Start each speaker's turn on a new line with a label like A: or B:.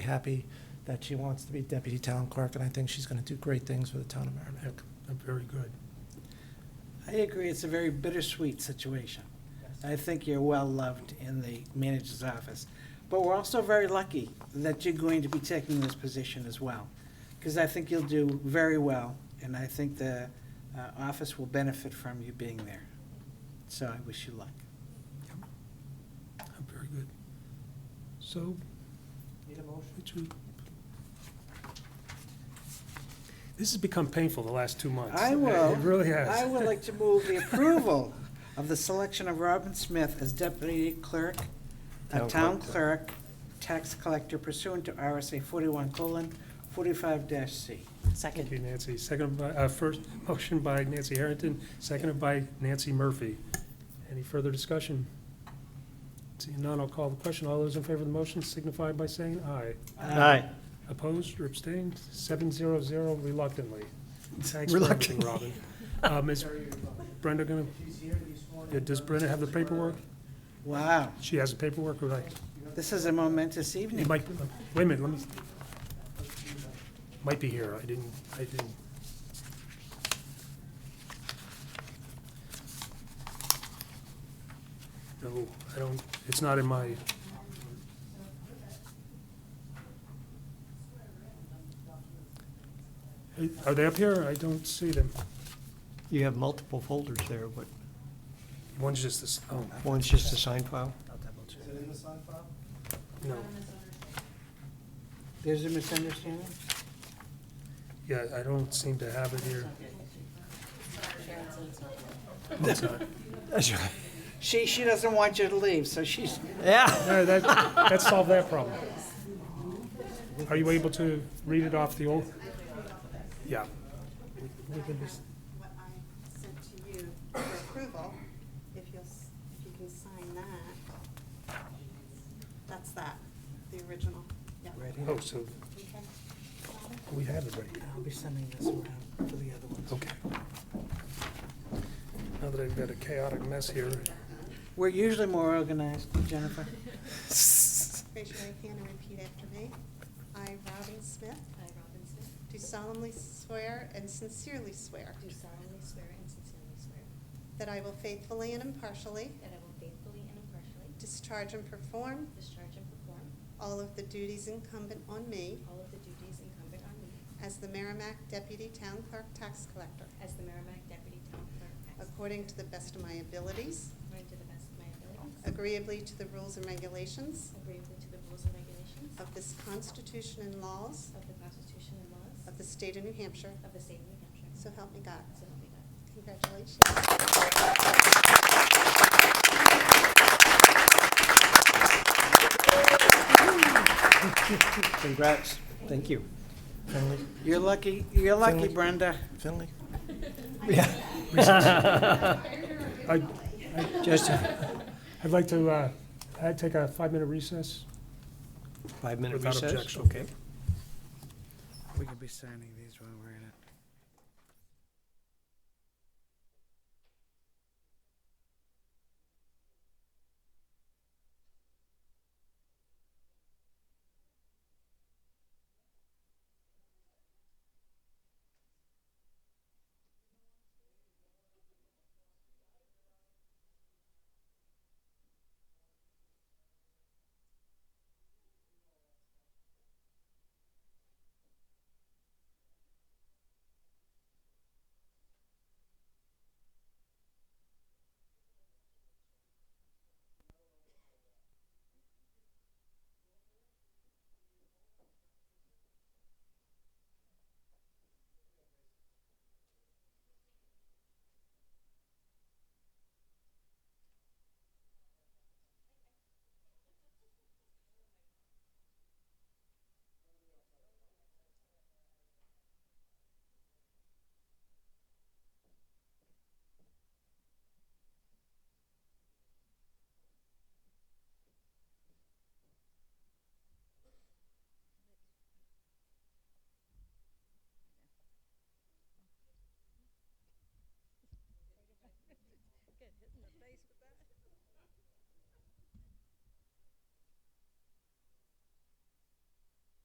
A: happy that she wants to be deputy town clerk, and I think she's going to do great things for the town of Merrimack.
B: Very good.
C: I agree, it's a very bittersweet situation. I think you're well-loved in the manager's office. But we're also very lucky that you're going to be taking this position as well, because I think you'll do very well, and I think the uh, office will benefit from you being there. So I wish you luck.
B: Very good. So,
A: Need a motion?
B: would you? This has become painful the last two months.
C: I
B: It-
C: will.
B: It really has.
C: I would like to move the approval of the selection of Robin Smith as deputy clerk, a
A: Town
C: town
A: collector.
C: clerk, tax collector pursuant to RSA forty-one colon forty-five dash C.
B: Thank
D: Second.
B: you, Nancy. Second by, uh, first, motion by Nancy Harrington, seconded by Nancy Murphy. Any further discussion? Seeing none, I'll call the question. All those in favor of the motion signify by saying aye. Opposed or abstained? Seven zero zero reluctantly. Thanks for everything, Robin. Um, is Brenda gonna, Yeah, does Brenda have the paperwork?
C: Wow,
B: She has the paperwork, or like,
C: this is a momentous
B: it
C: evening.
B: might, wait a minute, let me, might be here, I didn't, I didn't. No, I don't, it's not in my. Are they up here? I don't see them.
E: You have multiple folders there, but
B: One's just this, oh,
E: one's just a sign file.
B: no,
C: There's a misunderstanding?
B: yeah, I don't seem to have it here. No, it's not.
E: That's right.
C: She, she doesn't want you to leave, so she's,
E: Yeah.
B: No, that, that solved that problem. Are you able to read it off the old? Yeah. We can just-
F: what I sent to you for approval, if you'll, s- if you can sign that. That's that, the original, yeah.
C: ready.
B: Oh, so
F: Okay.
B: we have it right here.
C: I'll be sending this around to the other ones.
B: Okay. Now that I've got a chaotic mess here,
C: We're usually more organized, Jennifer.
F: Raise your right hand and repeat after me. I, Robin Smith. I, Robin Smith. Do solemnly swear and sincerely swear
G: Do solemnly swear and sincerely swear
F: that I will faithfully and impartially
G: that I will faithfully and impartially
F: discharge and perform
G: discharge and perform
F: all of the duties incumbent on me
G: all of the duties incumbent on me
F: as the Merrimack Deputy Town Clerk Tax Collector,
G: as the Merrimack Deputy Town Clerk Tax
F: according to the best of my abilities,
G: According to the best of my abilities.
F: Agreeably to the rules and regulations
G: Agreeably to the rules and regulations
F: of this Constitution and laws
G: of the Constitution and laws
F: of the state of New Hampshire,
G: of the state of New Hampshire.
F: so help me God.
G: So help me God.
F: Congratulations.
E: Congrats. Thank you.
A: Finley?
C: You're lucky, you're lucky,
A: Finley?
C: Brenda.
A: Finley?
B: I,
E: Just
B: I'd like to, uh, I'd take a five-minute recess.
E: five-minute
B: Without
E: recess.
B: objection.
E: Okay.
C: We could be signing these while we're in it.